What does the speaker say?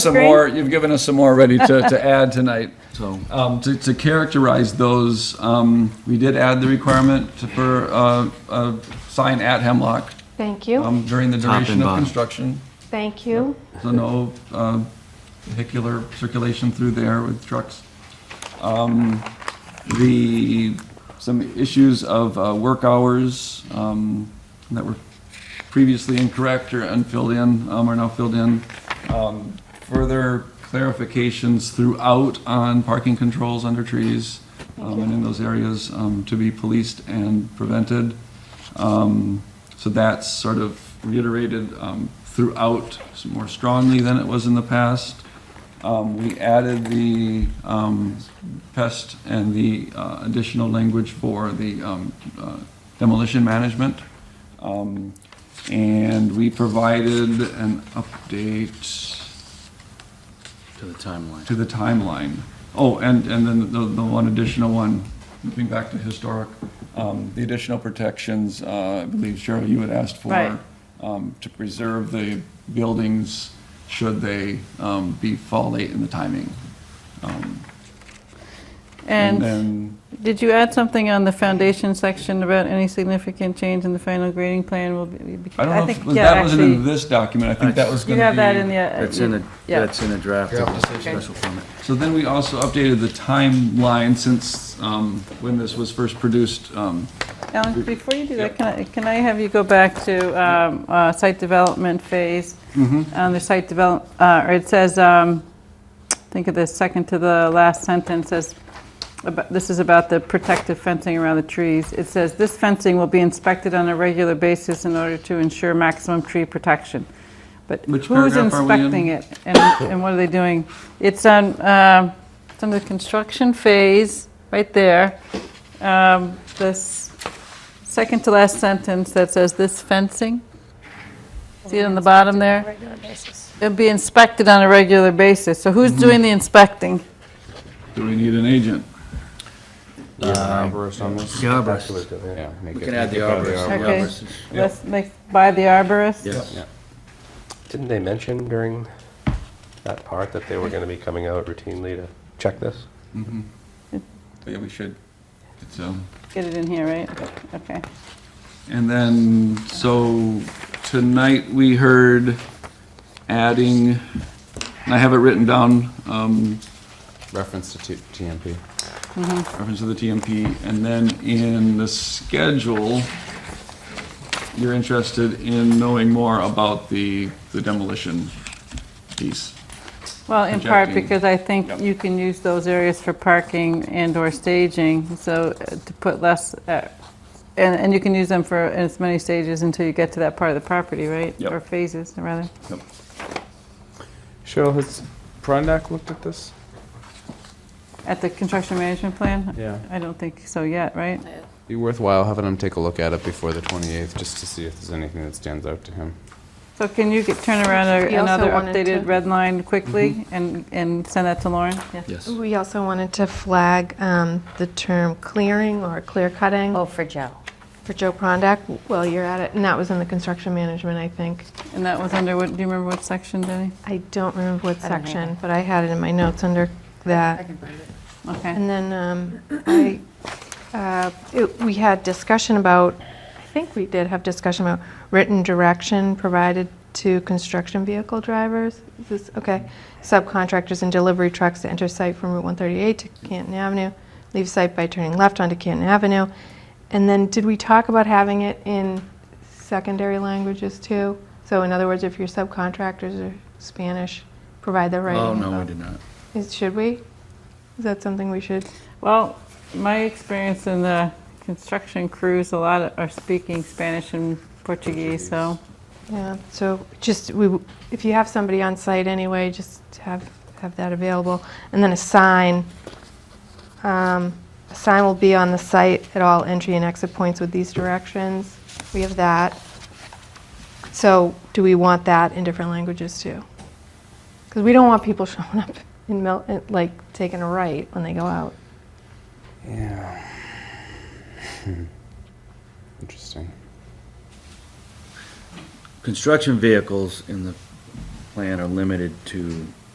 some more, you've given us some more already to, to add tonight. So, um, to, to characterize those, um, we did add the requirement to- for, uh, a sign at Hemlock, Thank you, um, during the Top and duration of bottom. construction. thank you. So no, uh, vehicular circulation through there with trucks. Um, the, some issues of, uh, work hours, um, that were previously incorrect or unfilled in, um, are now filled in. Um, further clarifications throughout on parking controls under trees, um, and in those areas, um, to be policed and prevented. Um, So that's sort of reiterated um, throughout more strongly than it was in the past. Um, We added the um, pest and the uh, additional language for the um, uh, demolition management. Um, And we provided an update To the timeline. to the timeline. Oh, and, and then the, the one additional one, moving back to historic, um, the additional protections, uh, I believe Cheryl, you had asked for. Right. Um, to preserve the buildings should they, um, be fall late in the timing. And then, did you add something on the foundation section about any significant change in the final grading plan will be? be- I don't know think- if, yeah, that wasn't in actually, this document, I think that was You gonna be. have that in the. uh, That's in the, yeah. that's in the draft of the special permit. So then we also updated the timeline since, um, when this was first produced, um, Alan, before you do that, can I, can I have you go back to um, uh, site development phase? Mm-hmm. On the Um, site develop, uh, or it says, um, think of the second to the last sentence says, about- this is about the protective fencing around the trees. It says, "This fencing will be inspected on a regular basis in order to ensure maximum tree protection." But Which who's paragraph are we in? inspecting it? And and what are they doing? It's on, um, it's on the construction phase, right there. Um, This second to last sentence that says, "This fencing." See it on the bottom there? regular basis. It'll be inspected on a regular basis. So who's Mm-hmm. doing the inspecting? do we need an agent? The arborist. We can add the arborist. The Okay. arborist is- Let's make, by the arborist? Yes. Didn't they mention during that part that they were going to be coming out routinely to check this? Yeah, we should. It's, um, Get it in here, right? Okay. And then, so tonight we heard adding, and I have it written down, um, reference to T- TMP. reference to the TMP, and then in the schedule, you're interested in knowing more about the the demolition piece. Well, in part Projecting. because I think Yep. you can use those areas for parking and/or staging, so uh, to put less, uh, and, and you can use them for as many stages until you get to that part of the property, right? Yep. Or phases, rather. Cheryl, has Prondak looked at this? At the construction management plan? Yeah. I don't think so yet, right? Be worthwhile having him take a look at it before the 28th, just to see if there's anything that stands out to him. So can you get, turn around a- He also another wanted updated to- red line quickly Mm-hmm. and, and send that to Lauren? Yeah. Yes. We also wanted to flag um, the term clearing or clear cutting Oh, for Joe. for Joe Prondak while you're at it, and that was in the construction management, I think. And that was under what, do you remember what section, Jenny? I don't remember what I don't either. section, but I had it in my notes under that. Okay. And then um, I, uh, it- we had discussion about, I think we did have discussion about written direction provided to construction vehicle drivers. Is this, okay, subcontractors and delivery trucks to enter site from Route 138 to Canton Avenue, leave site by turning left onto Canton Avenue. And then, did we talk about having it in secondary languages too? So in other words, if your subcontractors are Spanish, provide the right. Oh, no, we did not. Is, should we? Is that something we should? Well, my experience in the construction crews, a lot are speaking Spanish and Portuguese, so Yeah. So just we, w- if you have somebody on site anyway, just have have that available, and then a sign. Um, a sign will be on the site at all entry and exit points with these directions. We have that. So do we want that in different languages too? Because we don't want people showing up in Mil- uh, like taking a right when they go out. Yeah. Hmm. Interesting. Construction vehicles in the plan are limited to